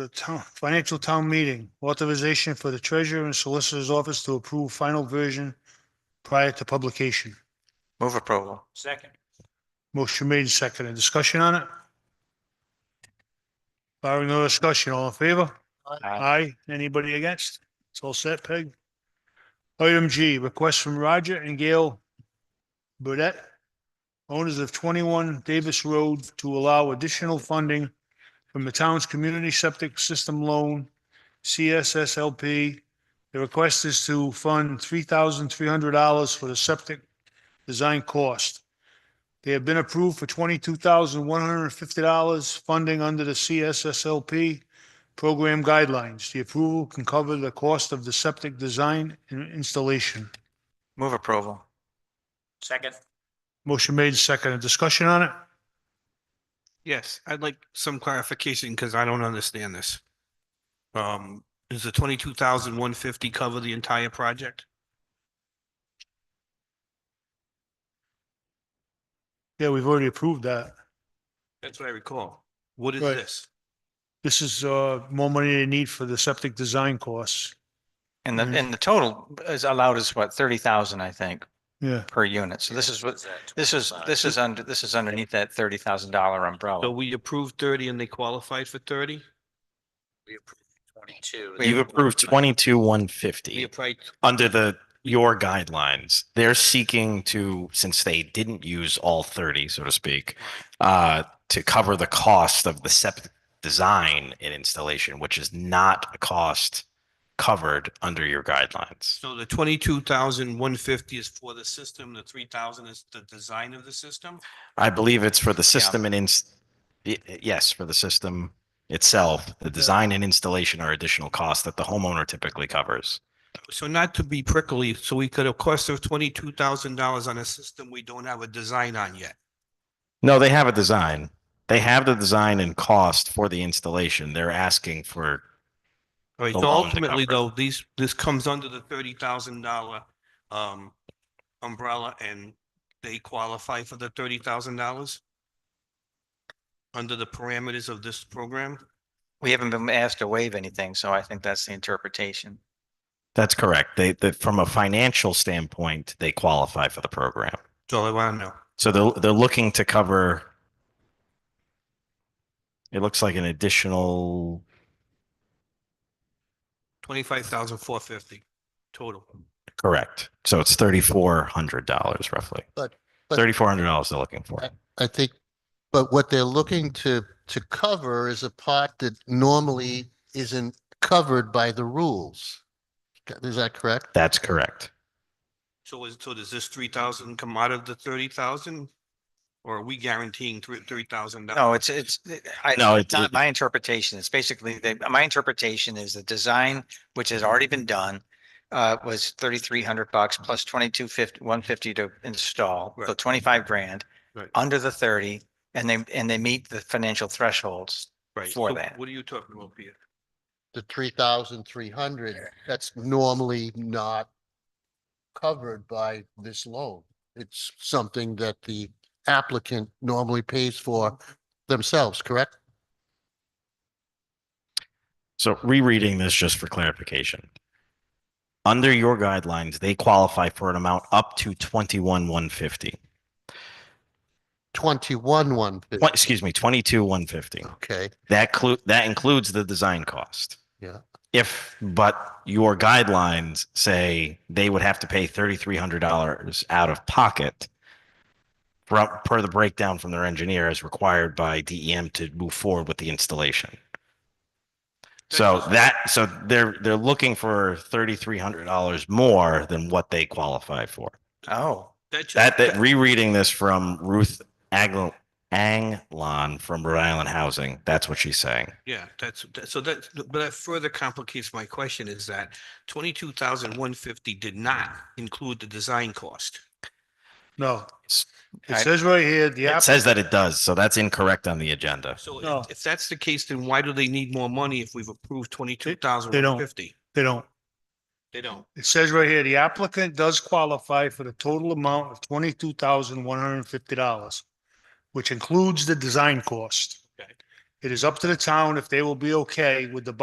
The town, financial town meeting, authorization for the treasurer and solicitor's office to approve final version prior to publication. Move approval. Second. Motion made and seconded. Discussion on it? Barring no discussion, all in favor? Aye. Anybody against? It's all set, Peg. Item G, request from Roger and Gail Burdette, owners of twenty-one Davis Road, to allow additional funding from the town's Community Septic System Loan, CSSLP. The request is to fund three thousand three hundred dollars for the septic design cost. They have been approved for twenty-two thousand one hundred and fifty dollars funding under the CSSLP program guidelines. The approval can cover the cost of the septic design and installation. Move approval. Second. Motion made, seconded. Discussion on it? Yes, I'd like some clarification because I don't understand this. Um, is the twenty-two thousand one fifty cover the entire project? Yeah, we've already approved that. That's what I recall. What is Right. this? This is, uh, more money they need for the septic design costs. And the, Mhm. and the total is allowed is what, thirty thousand, I think, Yeah, per unit. So this is what, this is, this is under, this is underneath that thirty thousand dollar So umbrella. we approved thirty and they qualified for thirty? We approved twenty-two. You've approved twenty-two, one We fifty applied, under the, your guidelines. They're seeking to, since they didn't use all thirty, so to speak, uh, to cover the cost of the septic design and installation, which is not a cost covered under your guidelines. so the twenty-two thousand one fifty is for the system, the three thousand is the design of the system? I believe it's for the system and ins, y- yes, for the system itself. The design and installation are additional costs that the homeowner typically covers. So not to be prickly, so we could have cost of twenty-two thousand dollars on a system we don't have a design on yet. No, they have a design. They have the design and cost for the installation. They're asking for, All right, the so loan to ultimately cover though, these, this comes under the thirty thousand dollar um umbrella and they qualify for the thirty thousand dollars? Under the parameters of this program? We haven't been asked to waive anything, so I think that's the interpretation. that's correct. They, that from a financial standpoint, they qualify for the program. That's all I want to know. So they're, they're looking to cover, it looks like an additional, Twenty-five thousand four fifty total. correct. So it's $3,400 roughly. But- but- $3,400 they're looking for. I think, but what they're looking to, to cover is a part that normally isn't covered by the rules. Is that correct? That's correct. So is, so does this three thousand come out of the thirty thousand? Or are we guaranteeing three, three thousand? No, it's, it's, I, No, it's it- not it- my interpretation. It's basically, the- my interpretation is the design, which has already been done, uh, was thirty-three hundred bucks Mm-hmm. plus twenty-two fifty, one fifty to install, so Right. twenty-five grand. Right. Under the thirty, and they, and they meet the financial thresholds. Right, for so that. What are you talking about, Peter? The three thousand three hundred, that's normally not covered by this loan. It's something that the applicant normally pays for themselves, correct? So rereading this just for clarification. Under your guidelines, they qualify for an amount up to twenty-one one fifty. Twenty-one, one fifty, What, excuse me, twenty-two one fifty. okay, That clu- that includes the design cost. Yeah. If, but your guidelines say they would have to pay thirty-three hundred dollars out of pocket per, per the breakdown from their engineer as required by DEM to move forward with the installation. So that, so they're, they're looking for thirty-three hundred dollars more than what they qualify for. Oh, That's That, that rereading this from Ruth Agl- Anglon from Rhode Island Housing, that's what she's saying. Yeah, that's, that- so that, but that further complicates my question is that twenty-two thousand one fifty did not include the design cost. No. S- It I- says right here, the It app, says that it does, so that's incorrect on the agenda. So if- No. if that's the case, then why do they need more money if we've approved twenty-two thousand one fifty? they don't. They don't. It says right here, the applicant does qualify for the total amount of twenty-two thousand one hundred and fifty dollars, which includes the design cost. Okay. It is up to the town if they will be okay with the